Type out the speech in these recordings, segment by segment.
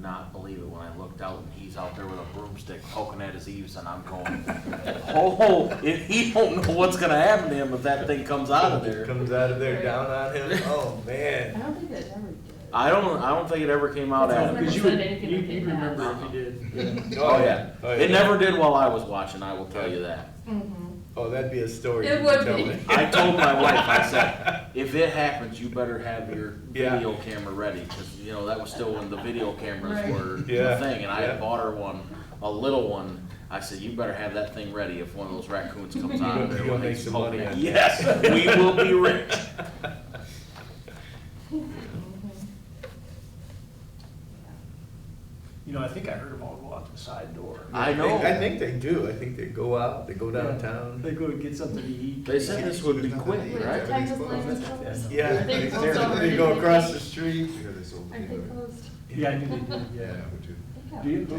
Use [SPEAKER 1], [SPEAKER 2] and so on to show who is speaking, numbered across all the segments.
[SPEAKER 1] not believe it when I looked out and he's out there with a broomstick poking at his eaves and I'm going, oh, if he don't know what's gonna happen to him if that thing comes out of there.
[SPEAKER 2] Comes out of there down on him. Oh
[SPEAKER 3] I
[SPEAKER 2] man.
[SPEAKER 3] don't think that ever did.
[SPEAKER 1] I don't, I don't think it ever came out at him.
[SPEAKER 4] Because you
[SPEAKER 3] said
[SPEAKER 4] would,
[SPEAKER 3] anything
[SPEAKER 4] you
[SPEAKER 3] like it
[SPEAKER 4] you'd remember
[SPEAKER 3] has.
[SPEAKER 4] if you did.
[SPEAKER 1] Oh, yeah.
[SPEAKER 2] Oh,
[SPEAKER 1] It never did while I was watching, I will tell you that.
[SPEAKER 5] Mm-hmm.
[SPEAKER 2] Oh, that'd be a story.
[SPEAKER 3] It
[SPEAKER 2] you
[SPEAKER 3] would
[SPEAKER 2] could tell
[SPEAKER 3] be.
[SPEAKER 2] me.
[SPEAKER 1] I told my wife, I said, if it happens, you better have your
[SPEAKER 2] Yeah.
[SPEAKER 1] video camera ready, cause you know, that was still when the video cameras
[SPEAKER 3] Right.
[SPEAKER 1] were the
[SPEAKER 2] Yeah,
[SPEAKER 1] thing, and I had
[SPEAKER 2] yeah.
[SPEAKER 1] bought her one, a little one. I said, you better have that thing ready if one of those raccoons comes out of
[SPEAKER 2] gonna-
[SPEAKER 1] there.
[SPEAKER 2] you're
[SPEAKER 1] when
[SPEAKER 2] gonna
[SPEAKER 1] they
[SPEAKER 2] make some
[SPEAKER 1] poke
[SPEAKER 2] money
[SPEAKER 1] it."
[SPEAKER 2] on that.
[SPEAKER 1] Yes, we will be rich.
[SPEAKER 4] You know, I think I heard them all go out the side door.
[SPEAKER 1] I
[SPEAKER 2] think- I
[SPEAKER 1] know.
[SPEAKER 2] think they do. I think they go out. They go downtown.
[SPEAKER 4] They go and get something to eat.
[SPEAKER 1] They said this would be quick,
[SPEAKER 3] Wait,
[SPEAKER 1] right?
[SPEAKER 3] the Texas Blazers closed?
[SPEAKER 2] Yeah.
[SPEAKER 3] Are they
[SPEAKER 2] They
[SPEAKER 3] closed
[SPEAKER 2] they
[SPEAKER 3] already?
[SPEAKER 2] go across the street.
[SPEAKER 6] I hear they sold
[SPEAKER 3] Are
[SPEAKER 6] peanut
[SPEAKER 3] they
[SPEAKER 6] butter.
[SPEAKER 3] closed?
[SPEAKER 4] Yeah, I knew they did,
[SPEAKER 6] Yeah,
[SPEAKER 4] yeah.
[SPEAKER 6] I would too.
[SPEAKER 3] They
[SPEAKER 4] Do you?
[SPEAKER 3] got-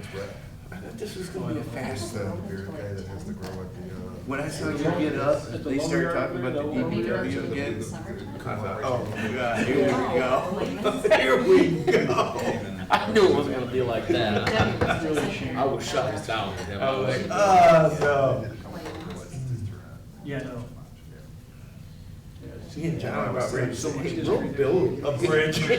[SPEAKER 6] That's right.
[SPEAKER 2] I thought this was gonna be a
[SPEAKER 6] It's
[SPEAKER 2] fast.
[SPEAKER 6] the beer guy that has the grow at the, uh.
[SPEAKER 2] When I saw you get up, they started talking about the
[SPEAKER 3] Maybe during
[SPEAKER 2] DPW again.
[SPEAKER 3] the summertime?
[SPEAKER 2] I thought, oh my god, here we
[SPEAKER 3] Oh,
[SPEAKER 2] go. Here we go.
[SPEAKER 1] I knew it wasn't gonna be like that.
[SPEAKER 3] That was just in there.
[SPEAKER 1] I was shut this down with him.
[SPEAKER 2] I was like, oh, no.
[SPEAKER 4] Yeah, no. Yeah,
[SPEAKER 2] Me and John about ready to
[SPEAKER 4] So much
[SPEAKER 2] say,
[SPEAKER 4] history
[SPEAKER 2] we'll build a bridge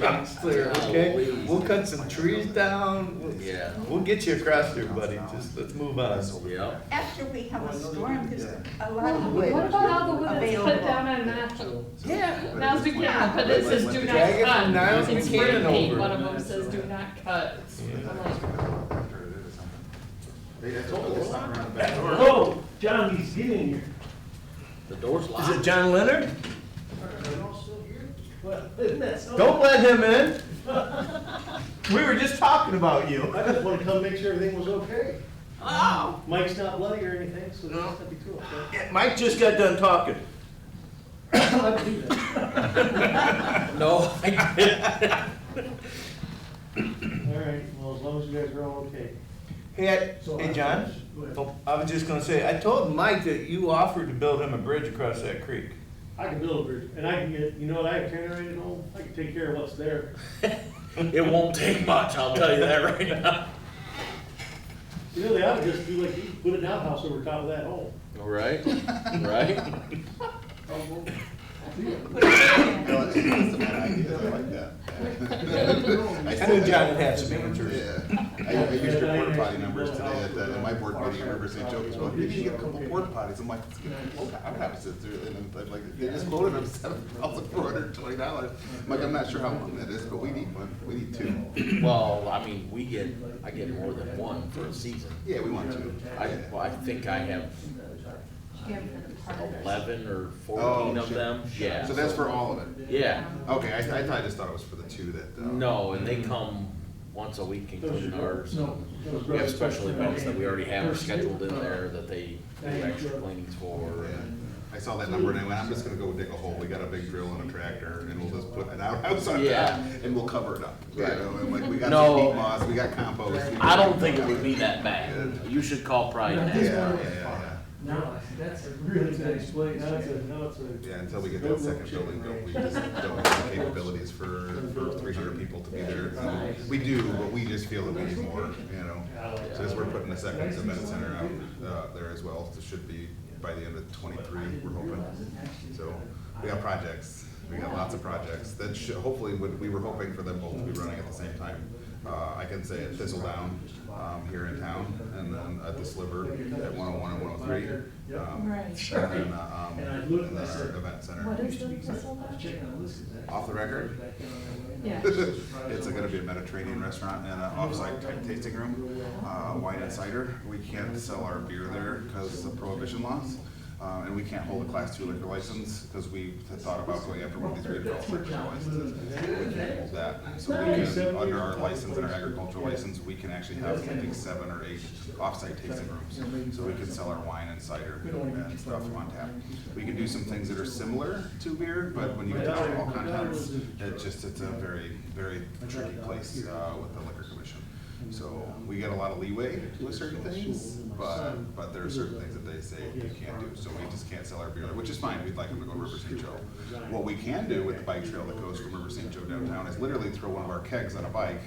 [SPEAKER 2] across there, okay?
[SPEAKER 1] Golly.
[SPEAKER 2] We'll cut some trees down. We'll-
[SPEAKER 1] Yeah.
[SPEAKER 2] We'll get you across there, buddy. Just, let's move on.
[SPEAKER 1] Yep.
[SPEAKER 5] After we have a storm, because a lot of wood.
[SPEAKER 3] What about all the wood that's put
[SPEAKER 5] Available.
[SPEAKER 3] down on Nashville?
[SPEAKER 2] Yeah.
[SPEAKER 3] Now's Buchanan, but it says do not
[SPEAKER 2] Drag it from
[SPEAKER 3] cut.
[SPEAKER 2] Niles
[SPEAKER 3] It's
[SPEAKER 2] Buchanan
[SPEAKER 3] spray paint,
[SPEAKER 2] over.
[SPEAKER 3] one of them says do not cut.
[SPEAKER 2] Yeah.
[SPEAKER 3] I'm like,
[SPEAKER 4] Oh, John, he's getting here.
[SPEAKER 1] The door's
[SPEAKER 2] Is it
[SPEAKER 1] locked.
[SPEAKER 2] John Leonard?
[SPEAKER 4] Well, isn't that so?
[SPEAKER 2] Don't let him in. We were just talking about you.
[SPEAKER 7] I just want to come make sure everything was okay. Wow. Mike's not bloody or anything, so that'd be cool. okay?
[SPEAKER 2] Mike just got done talking.
[SPEAKER 7] I'd do that.
[SPEAKER 1] No, I didn't.
[SPEAKER 7] All right, well, as long as you guys are all okay.
[SPEAKER 2] Hey, I-
[SPEAKER 7] So
[SPEAKER 2] hey,
[SPEAKER 7] I-
[SPEAKER 2] John.
[SPEAKER 7] Go ahead.
[SPEAKER 2] Oh, I was just gonna say, I told Mike that you offered to build him a bridge across that creek.
[SPEAKER 7] I can build a bridge, and I can get, you know what, I have generated at home, I can take care of what's there.
[SPEAKER 1] It won't take much, I'll tell you that right now.
[SPEAKER 7] You know, they ought to just do like, you, put an outhouse over top of that home.
[SPEAKER 1] Right, right?
[SPEAKER 6] That's a bad idea, I like that.
[SPEAKER 2] I knew John would have some answers.
[SPEAKER 6] Yeah, I, I used your porta potty numbers today at, the- at my board meeting, I remember saying, Joe, well, you should get a couple porta potties, I'm like, "It's gonna- okay, I'm gonna have to sit through it, and I'm like, they just quoted him seven thousand four hundred and twenty dollars. I'm like, I'm not sure how long that is, but we need one, we need two,
[SPEAKER 1] Well, I mean, we get, I get more than one for a season.
[SPEAKER 6] yeah, we want two.
[SPEAKER 1] I, well, I think I have
[SPEAKER 3] yeah, for the part of it.
[SPEAKER 1] eleven or
[SPEAKER 6] Oh,
[SPEAKER 1] fourteen of
[SPEAKER 6] shit.
[SPEAKER 1] them, yeah.
[SPEAKER 6] So that's for all of it?
[SPEAKER 1] Yeah,
[SPEAKER 6] Okay, I, I thought, I just thought it was for the two that, uh.
[SPEAKER 1] no, and they come once a week including ours. We have special events that we already have scheduled
[SPEAKER 7] uh,
[SPEAKER 1] in there that they do extra cleanings for.
[SPEAKER 6] Yeah, I saw that number and I went, I'm just gonna go dig a hole, we got a big drill and a tractor, and we'll just put an outhouse on top,
[SPEAKER 1] Yeah.
[SPEAKER 6] and we'll cover it up. You
[SPEAKER 1] Right.
[SPEAKER 6] know, and like, we got some
[SPEAKER 1] No.
[SPEAKER 6] peat moss, we got compost. we
[SPEAKER 1] I
[SPEAKER 6] got-
[SPEAKER 1] don't think it would be that bad. You should call Pride and
[SPEAKER 6] Yeah,
[SPEAKER 1] ask.
[SPEAKER 6] yeah, yeah,
[SPEAKER 4] No, that's a
[SPEAKER 7] Really nice place, now it's a, now it's a.
[SPEAKER 6] yeah, until we get that second building built, we just don't have the capabilities for, for three hundred people to be there. We do, but we just feel that we need more, you know, so as we're putting a second event center out, uh, there as well, it should be by the end of twenty-three, we're hoping. So we got projects, we got lots of projects that should, hopefully, would- we were hoping for them both to be running at the same time. Uh, I can say at Thistledown, um, here in town, and then at the Sliver at one oh one and one oh three. um,
[SPEAKER 3] Right.
[SPEAKER 6] And then, uh, um,
[SPEAKER 7] And I looked
[SPEAKER 6] and
[SPEAKER 7] and I
[SPEAKER 6] then our
[SPEAKER 7] said,
[SPEAKER 6] event
[SPEAKER 3] What
[SPEAKER 6] center.
[SPEAKER 3] is the whistle about?
[SPEAKER 6] Off the record,
[SPEAKER 3] Yeah.
[SPEAKER 6] it's gonna be a Mediterranean restaurant and an off-site type tasting room, uh, wine and cider. We can't sell our beer there because of prohibition laws. Uh, and we can't hold a class two liquor license because we had thought about going after one of these redeveloped liquor licenses. We can't hold that. So we can, under our license and our agricultural license, we can actually have, I think, seven or eight off-site tasting rooms. So we can sell our wine and cider and stuff on tap. We can do some things that are similar to beer, but when you get to alcohol contents, it just, it's a very, very tricky place, uh, with the liquor commission. So we get a lot of leeway with certain things, but, but there are certain things that they say you can't do. So we just can't sell our beer, which is fine, we'd like them to go to River St. Joe. What we can do with the bike trail that goes from River St. Joe downtown is literally throw one of our kegs on a bike